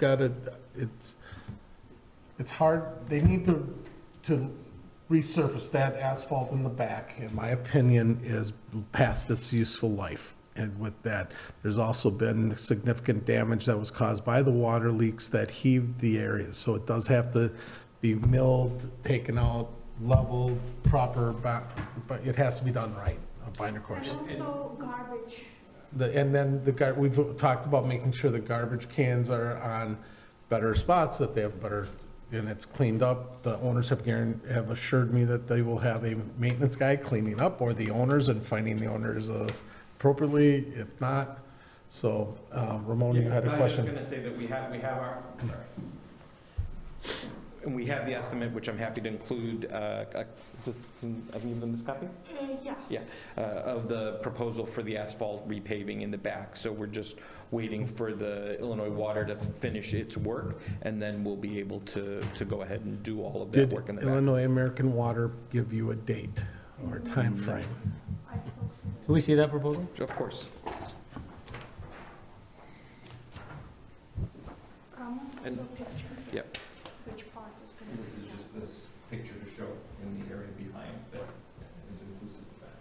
gotta, it's, it's hard, they need to, to resurface that asphalt in the back, in my opinion, is past its useful life. And with that, there's also been significant damage that was caused by the water leaks that heaved the areas. So it does have to be milled, taken out, leveled, proper, but, but it has to be done right, a binder course. And also garbage. The, and then the gar, we've talked about making sure the garbage cans are on better spots, that they have better, and it's cleaned up. The owners have guaran, have assured me that they will have a maintenance guy cleaning up, or the owners and finding the owners uh, appropriately, if not. So, um, Ramon, you had a I question? was just gonna say that we have, we have our, I'm sorry. And we have the estimate, which I'm happy to include, uh, uh, can- have you given this copy? Uh, yeah. uh, of the proposal for the asphalt repaving in the back. So we're just waiting for the Illinois Water to finish its work, and then we'll be able to, to go ahead and do all of that Did work in the back. Illinois American Water give you a date or time frame? I spoke to Can we see that proposal? Of course. Ramon, And- so picture. yep. Which part is going to be? done. this picture to show in the area behind that is inclusive of that.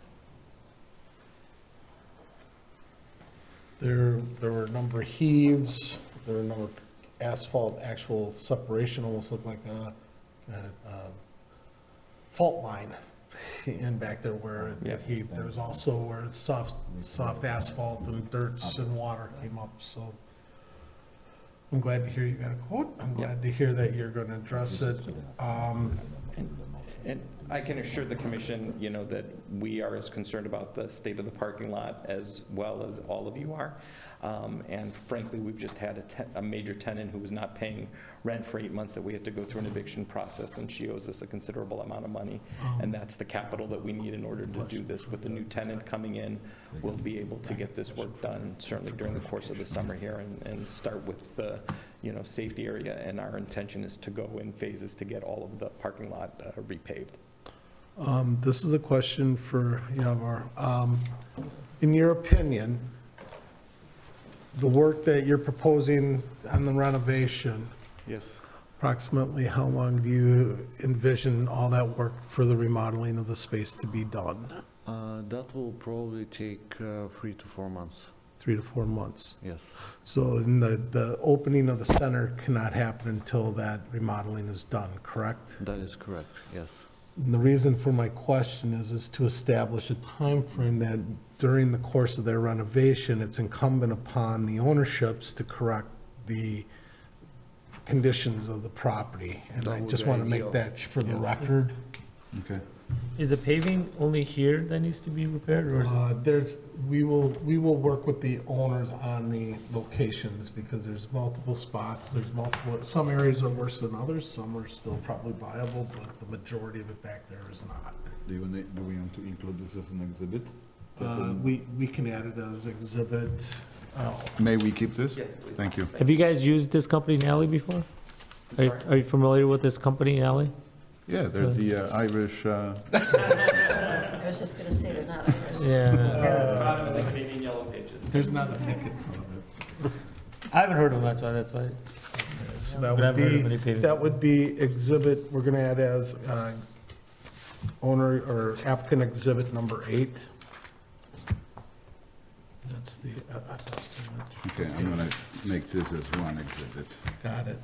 There, there were a number of heaves, there were a number of asphalt, actual separation, almost looked like a, a, um, fault line in back there where Yeah. it heaved. There was also where it's soft, soft asphalt and dirts and water came up, so. I'm glad to hear you got a quote. I'm glad to hear that you're gonna address it. Um, And I can assure the commission, you know, that we are as concerned about the state of the parking lot as well as all of you are. Um, And frankly, we've just had a te- a major tenant who was not paying rent for eight months that we had to go through an eviction process, and she owes us a considerable amount of money. And that's the capital that we need in order to do this. With the new tenant coming in, we'll be able to get this work done certainly during the course of the summer here and, and start with the, you know, safety area. And our intention is to go in phases to get all of the parking lot uh, repaved. Um, This is a question for Yavar. Um, In your opinion, the work that you're proposing on the renovation, Yes. approximately how long do you envision all that work for the remodeling of the space to be done? Uh, That will probably take uh, three to four months, Three to four months. yes. So then the, the opening of the center cannot happen until that remodeling is done, correct? That is correct, yes. And the reason for my question is, is to establish a time frame that during the course of their renovation, it's incumbent upon the ownerships to correct the conditions of the property. And I That would just be want to make ideal. that for the Yes. record. Okay. Is the paving only here that needs to be repaired, or is it Uh, There's, we will, we will work with the owners on the locations because there's multiple spots, there's multiple, some areas are worse than others, some are still probably viable, but the majority of it back there is not. Do you, need- do we want to include this as an exhibit? Uh, We, we can add it as exhibit, oh, May we keep this? Yes, please. Thank you. Have you guys used this company Nally before? Are you- Are you familiar with this company Nally? Yeah, there's the uh, Irish, uh, I was just gonna say they're not Irish. Yeah, Bottom of the Canadian Yellow Pages. there's not a nick in front of it. I haven't heard of them, that's why, that's why. So that But would I've heard of many be, paving. that would be exhibit, we're going to add as uh, owner or applicant exhibit number eight. That's the uh, uh, estimate. okay, I'm gonna make this as one exhibit. Got it.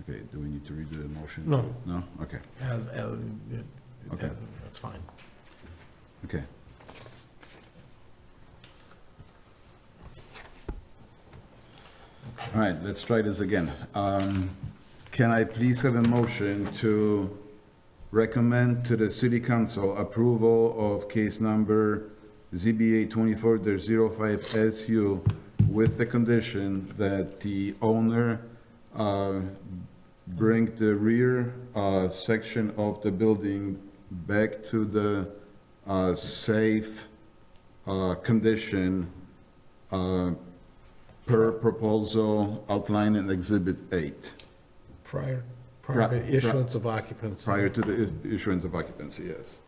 Okay, do we need to read the motion? No. No? Okay, As, as, it- Okay. that's fine. okay. All right, let's try this again. Um, Can I please have a motion to recommend to the city council approval of case number ZBA 24-05SU with the condition that the owner uh, bring the rear uh, section of the building back to the uh, safe uh, condition uh, per proposal outlined in Exhibit 8, Prior, prior Right, to right. issuance of occupancy. prior to the is- issuance of occupancy, yes.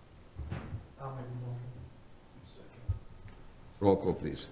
Roll call, please.